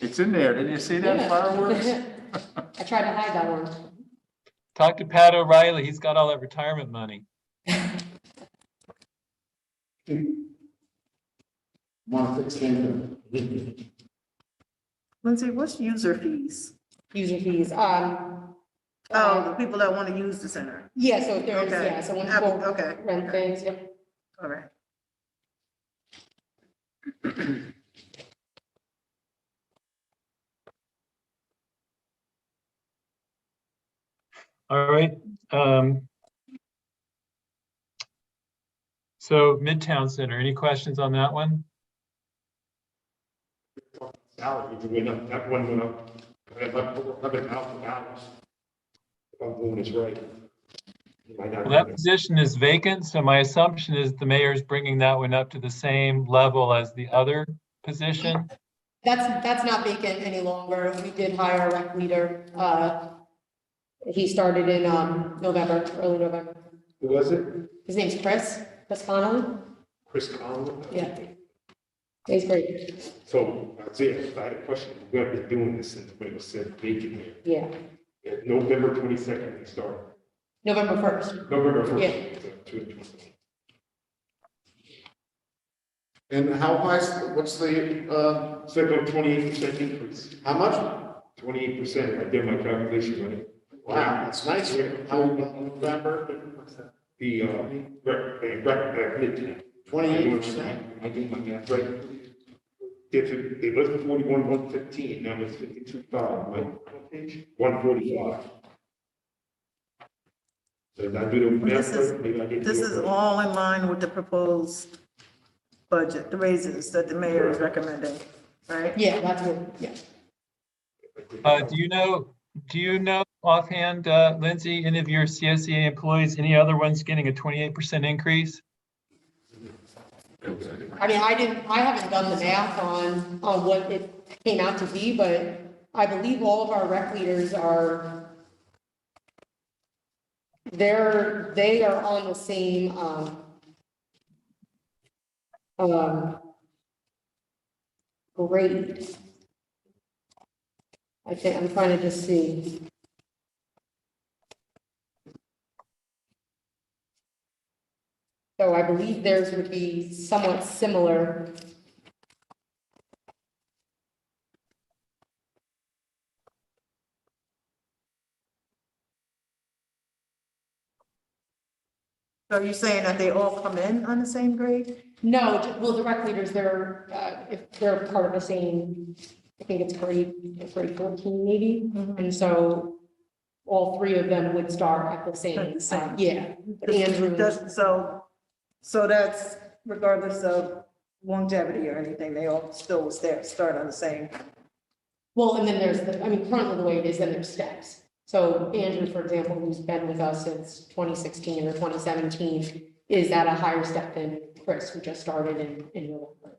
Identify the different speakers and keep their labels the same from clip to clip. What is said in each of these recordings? Speaker 1: It's in there. Didn't you see that fireworks?
Speaker 2: I tried to hide that one.
Speaker 3: Talk to Pat O'Reilly. He's got all that retirement money.
Speaker 4: Month extended.
Speaker 5: Lindsay, what's user fees?
Speaker 2: User fees, um.
Speaker 5: Oh, the
Speaker 2: um,
Speaker 5: people that want to use the center.
Speaker 2: Yeah, so if there's,
Speaker 5: Okay.
Speaker 2: yeah, so when
Speaker 5: Ab-
Speaker 2: people
Speaker 5: Okay,
Speaker 2: rent things, yeah.
Speaker 5: all right.
Speaker 3: All right. um, So Midtown Center, any questions on that one?
Speaker 4: Salary, we went up, that one went up, eleven thousand dollars. If I'm doing this right. You might not
Speaker 3: Well, that
Speaker 4: remember.
Speaker 3: position is vacant, so my assumption is the mayor's bringing that one up to the same level as the other position.
Speaker 2: That's, that's not vacant any longer. We did hire a rec leader. Uh, he started in, um, November, early November.
Speaker 4: Who was it?
Speaker 2: His name's Chris, Chris Connolly.
Speaker 4: Chris Conlon?
Speaker 2: Yeah. He's great.
Speaker 4: So, Isaiah, I had a question, we have been doing this since we were said vacant here.
Speaker 2: Yeah.
Speaker 4: At November twenty-second, we started,
Speaker 2: November first.
Speaker 4: November
Speaker 2: Yeah.
Speaker 4: first.
Speaker 6: And how high, is- what's the, uh,
Speaker 4: Second, twenty-eight percent increase,
Speaker 6: how much?
Speaker 4: twenty-eight percent, I did my calculation on it.
Speaker 6: Wow, that's nice. How, November,
Speaker 4: The, uh, rec, the rec, uh, midtown.
Speaker 6: twenty-eight percent?
Speaker 4: I do my math right. If it, it was forty-one, one fifteen, now it's fifty-two five, like, one forty-five. So did I do the math
Speaker 5: This is-
Speaker 4: right? Maybe I didn't do
Speaker 5: This
Speaker 4: it
Speaker 5: is
Speaker 4: right.
Speaker 5: all in line with the proposed budget, the raises that the mayor is recommending, right?
Speaker 2: Yeah, that's what, yeah.
Speaker 3: Uh, do you know, do you know offhand, uh, Lindsay, any of your CSEA employees, any other ones getting a twenty-eight percent increase?
Speaker 2: I mean, I didn't, I haven't done the math on, on what it came out to be, but I believe all of our rec leaders are, they're, they are on the same, um, um, grade. I think, I'm trying to just see. So I believe theirs would be somewhat similar.
Speaker 5: So you're saying that they all come in on the same grade?
Speaker 2: No, ju- well, the rec leaders, they're, uh, if they're part of the same, I think it's grade, grade fourteen maybe.
Speaker 5: Mm-hmm.
Speaker 2: And so all three of them would start at the
Speaker 5: At
Speaker 2: same,
Speaker 5: the same.
Speaker 2: uh, yeah. Andrew,
Speaker 5: Does- So, so that's regardless of longevity or anything, they all still was there, start on the same.
Speaker 2: well, and then there's, the I mean, currently the way it is, then there's steps. So Andrew, for example, who's been with us since twenty sixteen or twenty seventeen, is at a higher step than Chris, who just started in, in November.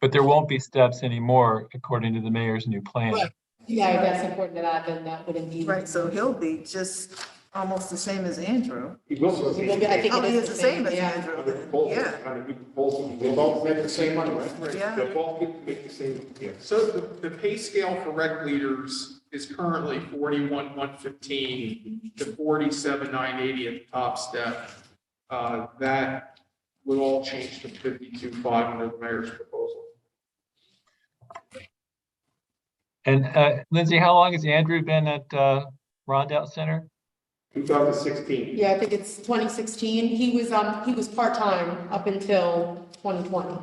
Speaker 3: But there won't be steps anymore according to the mayor's new plan.
Speaker 2: Right. Yeah, if that's important to that, then that wouldn't be.
Speaker 5: Right, so he'll be just almost the same as Andrew.
Speaker 4: It will be.
Speaker 2: It will be- I think-
Speaker 5: Oh,
Speaker 2: it
Speaker 5: he
Speaker 2: is
Speaker 5: is the same as
Speaker 2: yeah.
Speaker 5: Andrew,
Speaker 4: Under the
Speaker 5: then.
Speaker 4: proposal,
Speaker 5: yeah.
Speaker 4: under the proposal,
Speaker 6: They
Speaker 4: They'll
Speaker 6: both
Speaker 4: both
Speaker 6: make the same money, right?
Speaker 4: make,
Speaker 5: Yeah.
Speaker 4: they'll both make- make the same, yeah.
Speaker 7: So the, the pay scale for rec leaders is currently forty-one, one fifteen to forty-seven, nine eighty at the top step. Uh, that will all change to fifty-two, five under the mayor's proposal.
Speaker 3: And, uh, Lindsay, how long has Andrew been at, uh, Rondout Center?
Speaker 4: Two thousand sixteen.
Speaker 2: Yeah, I think it's twenty sixteen. He was, um, he was part-time up until twenty twenty.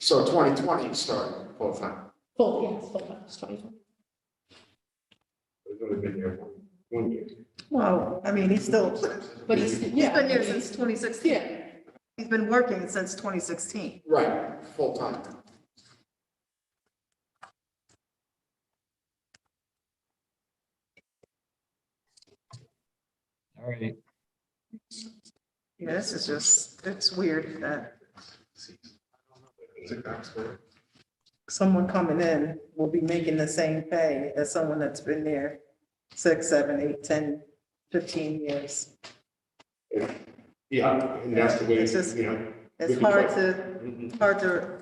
Speaker 6: So twenty twenty started full time.
Speaker 2: Full, yes, full-time, it's twenty twenty.
Speaker 4: It's only been there one, one year.
Speaker 5: Well, I mean, he's still,
Speaker 2: But he's,
Speaker 5: he's
Speaker 2: yeah.
Speaker 5: been here
Speaker 2: but he's-
Speaker 5: since twenty sixteen.
Speaker 2: Yeah,
Speaker 5: He's been working since twenty sixteen.
Speaker 6: Right, full time.
Speaker 3: All right.
Speaker 5: Yeah, this is just, it's weird that
Speaker 4: It's a gospel.
Speaker 5: someone coming in will be making the same pay as someone that's been there six, seven, eight, ten, fifteen years.
Speaker 4: Yeah, and that's the way,
Speaker 5: It's just-
Speaker 4: you know. Mm-hmm.
Speaker 5: It's hard to, hard to